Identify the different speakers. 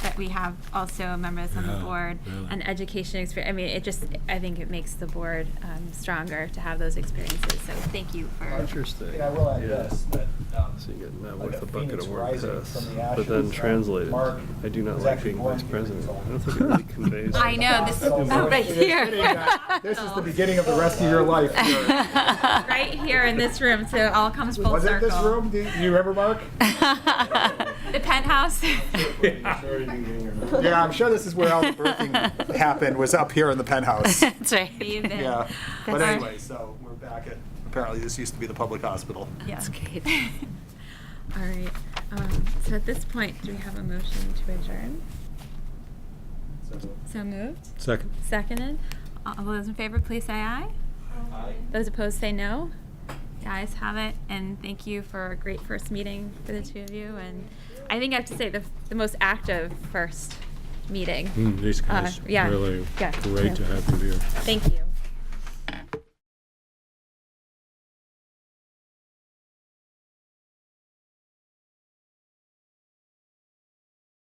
Speaker 1: we have also members on the
Speaker 2: Yeah,
Speaker 1: board
Speaker 2: really.
Speaker 1: and education experience. I mean, it just, I think it makes the board um, stronger to have those experiences. So thank you for.
Speaker 3: Interesting.
Speaker 4: And I will add
Speaker 3: Yeah.
Speaker 4: this, that, um,
Speaker 3: So you get met
Speaker 4: like
Speaker 3: with
Speaker 4: a
Speaker 3: a bucket
Speaker 4: phoenix
Speaker 3: of word
Speaker 4: rising
Speaker 3: piss,
Speaker 4: from the
Speaker 3: but
Speaker 4: ashes,
Speaker 3: then
Speaker 4: uh,
Speaker 3: translated,
Speaker 4: Mark
Speaker 3: I do not
Speaker 4: was
Speaker 3: like
Speaker 4: actually
Speaker 3: being
Speaker 4: born
Speaker 3: vice
Speaker 4: here,
Speaker 3: president.
Speaker 4: so-
Speaker 3: I don't think it really conveys.
Speaker 1: I know, this is,
Speaker 4: So-
Speaker 1: oh, right
Speaker 4: It is
Speaker 1: here.
Speaker 4: This is the beginning of the rest of your life. here.
Speaker 1: Right here in this room, so it all comes full circle.
Speaker 4: Was it this room? Do you do you remember, Mark?
Speaker 1: The penthouse.
Speaker 4: Yeah, I'm sure this is where all the birthing happened, was up here in the penthouse.
Speaker 5: That's right.
Speaker 1: Even.
Speaker 4: Yeah. But
Speaker 5: That's-
Speaker 4: anyway, so we're back at, apparently this used to be the public hospital.
Speaker 1: Yeah.
Speaker 5: That's great.
Speaker 1: All right, um, so at this point, do we have a motion to adjourn? So moved,
Speaker 2: Second.
Speaker 1: seconded. All those in favor, please say aye.
Speaker 4: Aye.
Speaker 1: Those opposed, say no. The ayes have it, and thank you for a great first meeting for the two of you. And I think I have to say, the, the most active first meeting.
Speaker 2: Mm, These
Speaker 1: Uh,
Speaker 2: guys,
Speaker 1: yeah,
Speaker 2: really
Speaker 1: yeah,
Speaker 2: great
Speaker 1: yeah.
Speaker 2: to have you here.
Speaker 1: Thank you.